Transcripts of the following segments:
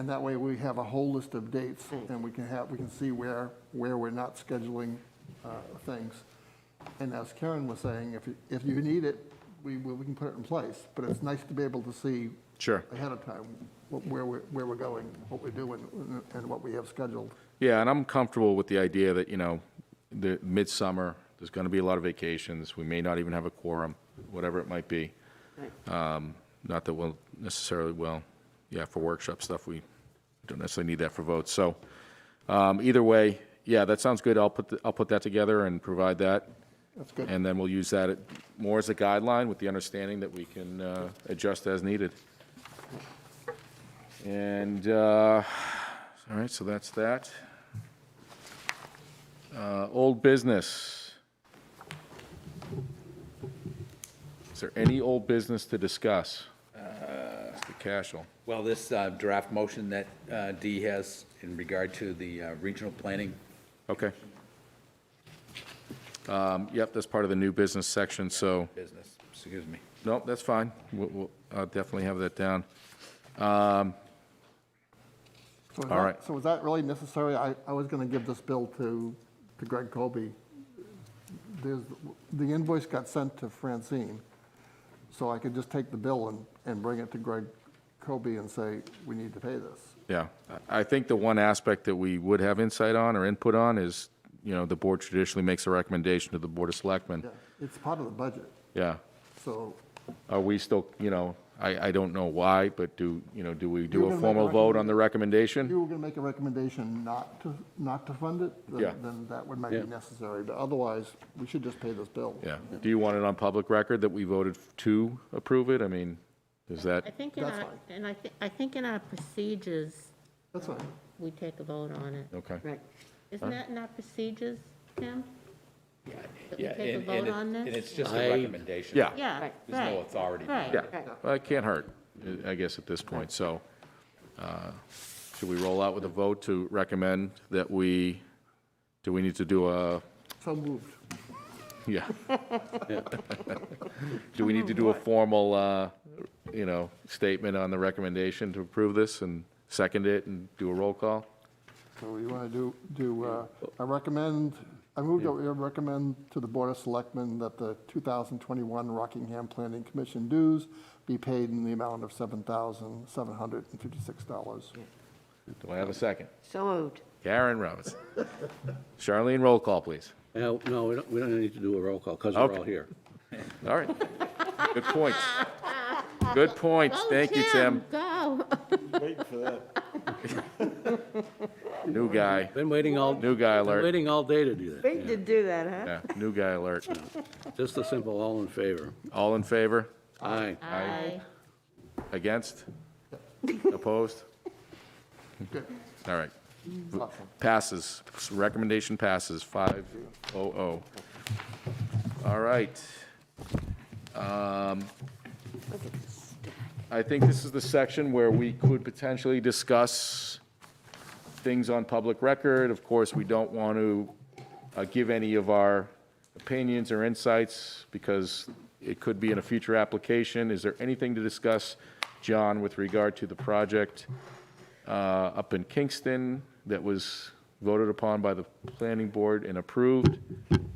And that way, we have a whole list of dates, and we can have, we can see where, where we're not scheduling uh, things. And as Karen was saying, if, you- if you need it, we, we we can put it in place, but it's nice to be able to see Sure. ahead of time what- where we're, where we're going, what we're doing, and what we have scheduled. Yeah, and I'm comfortable with the idea that, you know, the midsummer, there's going to be a lot of vacations. We may not even have a quorum, whatever it might be. Um, Not that we'll necessarily, well, yeah, for workshop stuff, we don't necessarily need that for votes. So um, either way, yeah, that sounds good. I'll put, the- I'll put that together and provide that. That's good. And then we'll use that more as a guideline with the understanding that we can uh, adjust as needed. And, uh, all right, so that's that. Uh, Old business. Is there any old business to discuss? Mr. Cashel? Well, this uh, draft motion that uh, Dee has in regard to the uh, regional planning, Okay. Um, Yep, that's part of the new business section, so. business, excuse me. Nope, that's fine. We'll, we'll I'll definitely have that down. So is All that- right. So is that really necessary? I, I was going to give this bill to, to Greg Colby. There's, the invoice got sent to Francine, so I could just take the bill and, and bring it to Greg Colby and say, we need to pay this. Yeah. I I think the one aspect that we would have insight on or input on is, you know, the board traditionally makes a recommendation to the Board of Selectmen. Yeah, It's part of the budget, Yeah. so. Are we still, you know, I, I don't know why, but do, you know, do we You were do gonna a make a formal vote on the If you recommendation? were going to make a recommendation not to, not to fund it, Yeah. then, then that would might be Yeah. necessary, but otherwise, we should just pay this bill. Yeah. Do you want it on public record that we voted to approve it? I mean, is I that, think in That's our, fine. and I think, I think in our procedures, That's fine. we take a vote on it. okay. Right. Isn't that in our procedures, Tim? That we Yeah, take a and- vote and it- on And this? it's just a recommendation. Yeah. Yeah, right. There's no authority. Right. Yeah. Well, it can't hurt, I- I guess, at this point. So uh, should we roll out with a vote to recommend that we, do we need to do a, So moved. yeah? Do we need to do a formal, uh, you know, statement on the recommendation to approve this and second it and do a roll call? So you want to do, do, uh, I recommend, I move that we recommend to the Board of Selectmen that the 2021 Rockingham Planning Commission dues be paid in the amount of $7,756. Do I have a second? So moved. Karen Roberts. Charlene, roll call, please. No, no, we don't, we don't need to do a roll call, because we're all Okay. here. All right. Good points. Good points. Thank you, Tim. Oh, Go. New guy. Been waiting all. New guy been alert. Waiting all day to do that. Great to do that, huh? Yeah, new guy alert. Just a simple all in favor. All in favor? Aye. Aye. Against? Opposed? Good. All right. Awesome. Passes. Recommendation passes, 500. All right. Um, I think this is the section where we could potentially discuss things on public record. Of course, we don't want to uh, give any of our opinions or insights because it could be in a future application. Is there anything to discuss, John, with regard to the project uh, up in Kingston that was voted upon by the planning board and approved?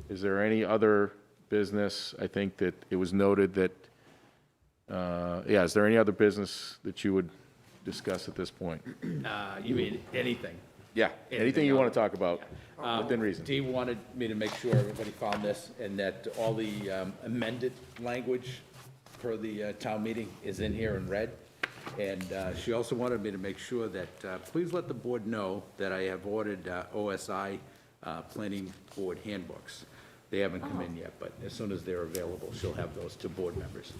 Is there any other business? I think that it was noted that, uh, yeah, is there any other business that you would discuss at this point? Uh, You mean anything? Yeah, anything Anything you want else? Um, to talk about, within reason. Dee wanted me to make sure everybody found this and that all the um, amended language for the uh, town meeting is in here in red. And uh, she also wanted me to make sure that, uh, please let the board know that I have ordered uh, OSI uh, Planning Board handbooks. They haven't come in yet, but as soon as they're available, she'll have those to board members.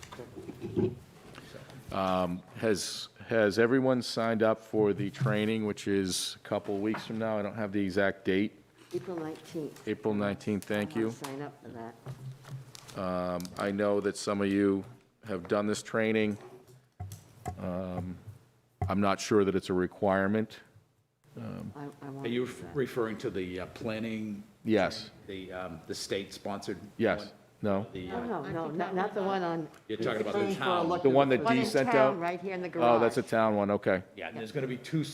Has, has everyone signed up for the training, which is a couple weeks from now? I don't have the exact date. April 19th. April 19th, thank I'll you. Sign up for that. I know that some of you have done this training. Um, I'm not sure that it's a requirement. I, I Are want you to do that. referring to the uh, planning? Yes. The, um, the state-sponsored? Yes, one? no? The, No, uh, no, no, not, not the one on, You're talking about the Training for town? elect- The one that one Dee in sent out? town, right here in the garage. Oh, that's Oh, a town one, okay. Yeah, and there's going to be two